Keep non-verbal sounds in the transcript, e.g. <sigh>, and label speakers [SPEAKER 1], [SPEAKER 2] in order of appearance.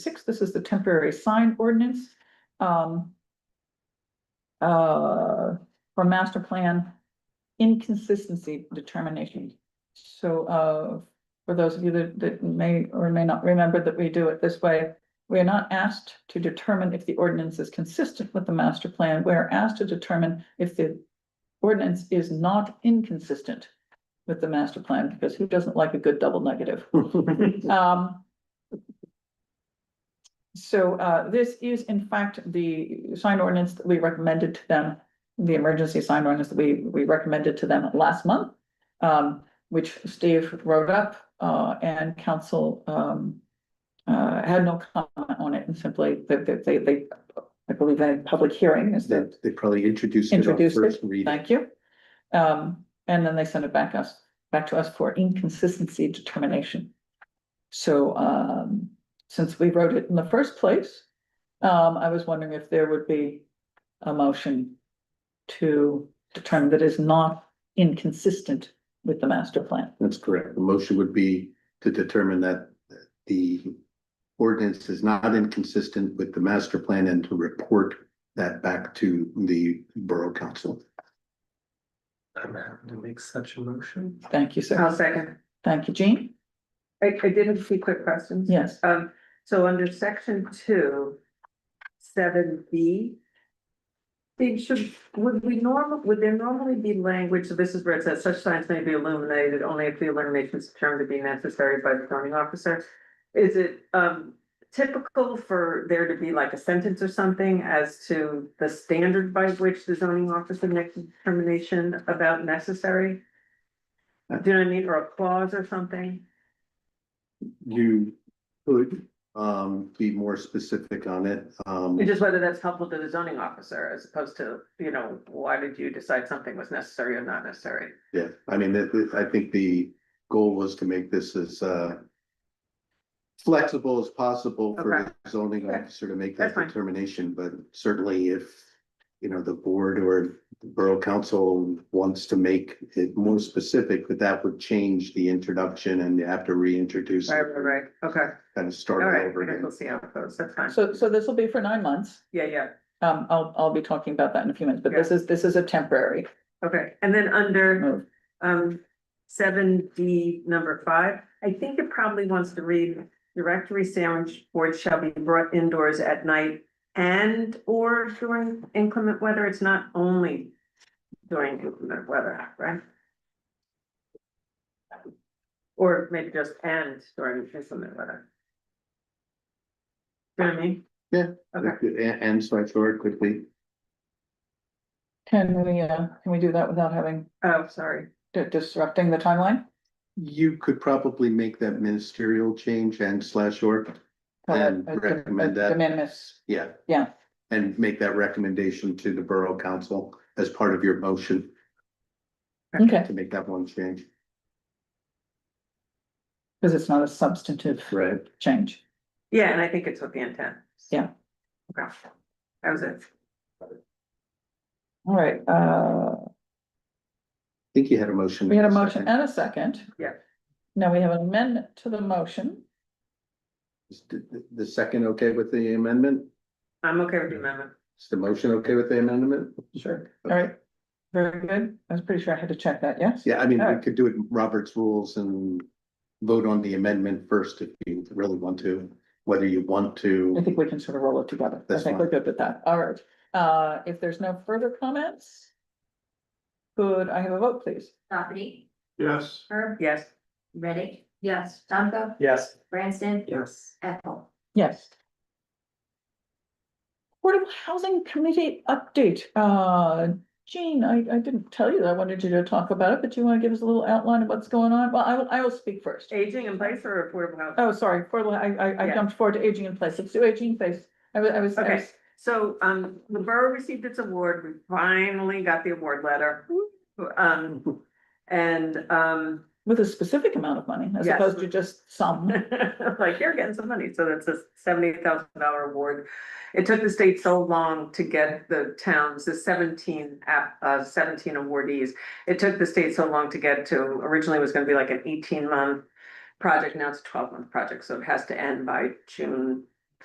[SPEAKER 1] six, this is the temporary sign ordinance. Um. Uh, for master plan inconsistency determination. So, uh, for those of you that, that may or may not remember that we do it this way. We are not asked to determine if the ordinance is consistent with the master plan. We are asked to determine if the ordinance is not inconsistent with the master plan, because who doesn't like a good double negative? Um. So, uh, this is in fact the sign ordinance that we recommended to them, the emergency sign ordinance that we, we recommended to them last month. Um, which Steve wrote up, uh, and council, um. Uh, had no comment on it and simply that, that they, they, I believe they had public hearing is the
[SPEAKER 2] That they probably introduced it on
[SPEAKER 1] Introduced it,
[SPEAKER 2] first reading.
[SPEAKER 1] Thank you. Um, and then they send it back us, back to us for inconsistency determination. So, um, since we wrote it in the first place, um, I was wondering if there would be a motion to determine that is not inconsistent with the master plan.
[SPEAKER 2] That's correct. The motion would be to determine that the ordinance is not inconsistent with the master plan and to report that back to the Borough Council.
[SPEAKER 3] I'm happy to make such a motion.
[SPEAKER 1] Thank you, sir.
[SPEAKER 4] I'll second.
[SPEAKER 1] Thank you, Jean.
[SPEAKER 4] I, I did have two quick questions.
[SPEAKER 1] Yes.
[SPEAKER 4] Um, so under section two, seven B. They should, would we normal, would there normally be language, so this is where it says such signs may be illuminated only if the illumination is determined to be necessary by the zoning officer? Is it, um, typical for there to be like a sentence or something as to the standard by which the zoning officer makes a determination about necessary? Do you know what I mean, or a clause or something?
[SPEAKER 2] You could um be more specific on it. Um,
[SPEAKER 4] And just whether that's helpful to the zoning officer as opposed to, you know, why did you decide something was necessary or not necessary?
[SPEAKER 2] yeah, I mean, that- that- I think the goal was to make this as uh flexible as possible for the zoning
[SPEAKER 4] Okay.
[SPEAKER 2] officer to make that
[SPEAKER 4] That's fine.
[SPEAKER 2] determination, but certainly if you know, the board or the Borough Council wants to make it more specific, that that would change the introduction and you have to reintroduce it,
[SPEAKER 4] Right, right, right, okay,
[SPEAKER 2] kind of
[SPEAKER 4] all
[SPEAKER 2] start
[SPEAKER 4] right,
[SPEAKER 2] over
[SPEAKER 4] I guess
[SPEAKER 2] again.
[SPEAKER 4] we'll see how it goes, that's fine,
[SPEAKER 1] So, so this will be for nine months.
[SPEAKER 4] yeah, yeah,
[SPEAKER 1] Um, I'll, I'll be talking about that in a few minutes, but this is, this is a temporary
[SPEAKER 4] okay, and then under
[SPEAKER 1] move.
[SPEAKER 4] um seven D number five. I think it probably wants to read directory sandwich boards shall be brought indoors at night. And or during inclement weather, it's not only during inclement weather, right? Or maybe just and during inclement weather. Do you know what I mean?
[SPEAKER 2] Yeah.
[SPEAKER 4] Okay,
[SPEAKER 2] And, and so I throw it quickly,
[SPEAKER 1] Can we, uh, can we do that without having,
[SPEAKER 4] oh, sorry,
[SPEAKER 1] di- disrupting the timeline?
[SPEAKER 2] you could probably make that ministerial change and slash or.
[SPEAKER 1] Call it
[SPEAKER 2] And
[SPEAKER 1] a de-
[SPEAKER 2] recommend
[SPEAKER 1] a
[SPEAKER 2] that.
[SPEAKER 1] De minimis,
[SPEAKER 2] Yeah.
[SPEAKER 1] Yeah.
[SPEAKER 2] And make that recommendation to the Borough Council as part of your motion
[SPEAKER 1] okay,
[SPEAKER 2] to make that one change.
[SPEAKER 1] because it's not a substantive
[SPEAKER 2] Right.
[SPEAKER 1] change.
[SPEAKER 4] yeah, and I think it's with the intent.
[SPEAKER 1] Yeah.
[SPEAKER 4] Okay, that was it.
[SPEAKER 1] All right, uh,
[SPEAKER 2] I think you had a motion.
[SPEAKER 1] we had a motion and a second.
[SPEAKER 4] Yeah.
[SPEAKER 1] Now we have an amendment to the motion.
[SPEAKER 2] Is The the second, okay with the amendment?
[SPEAKER 4] I'm okay with the amendment.
[SPEAKER 2] Is the motion okay with the amendment?
[SPEAKER 1] Sure. All right, very good. I was pretty sure I had to check that, yes?
[SPEAKER 2] Yeah, I mean, we
[SPEAKER 1] Alright.
[SPEAKER 2] could do it in Robert's rules and vote on the amendment first if you really want to, whether you want
[SPEAKER 1] I
[SPEAKER 2] to.
[SPEAKER 1] think we can sort of roll it together. I
[SPEAKER 2] That's
[SPEAKER 1] think
[SPEAKER 2] fine.
[SPEAKER 1] we're good with that. All right, uh, if there's no further comments, could I have a vote, please?
[SPEAKER 5] Dockerty,
[SPEAKER 2] Yes.
[SPEAKER 5] Herb,
[SPEAKER 4] Yes.
[SPEAKER 5] Reddick. Yes. Tomco,
[SPEAKER 3] Yes.
[SPEAKER 5] Branson,
[SPEAKER 3] Yes.
[SPEAKER 5] Ethel.
[SPEAKER 1] Yes. Portable Housing Committee update. Uh, Jean, I, I didn't tell you that I wanted you to talk about it, but you want to give us a little outline of what's going on? Well, I will, I will speak first.
[SPEAKER 4] Aging in place or affordable housing?
[SPEAKER 1] Oh, sorry, portable, I, I, I
[SPEAKER 4] Yeah.
[SPEAKER 1] jumped forward to aging in place. Let's do aging in place. I was, I was, I
[SPEAKER 4] Okay.
[SPEAKER 1] was-
[SPEAKER 4] So, um, the borough received its award, we finally got the award letter. Um, and, um, <laughs>
[SPEAKER 1] with a specific amount of money as
[SPEAKER 4] Yes.
[SPEAKER 1] opposed to just some.
[SPEAKER 4] like, you're getting some money, so that's a seventy thousand dollar award. It took the state so long to get the towns, the seventeen app, uh, seventeen awardees. It took the state so long to get to, originally it was gonna be like an eighteen month project, now it's a twelve month project, so it has to end by June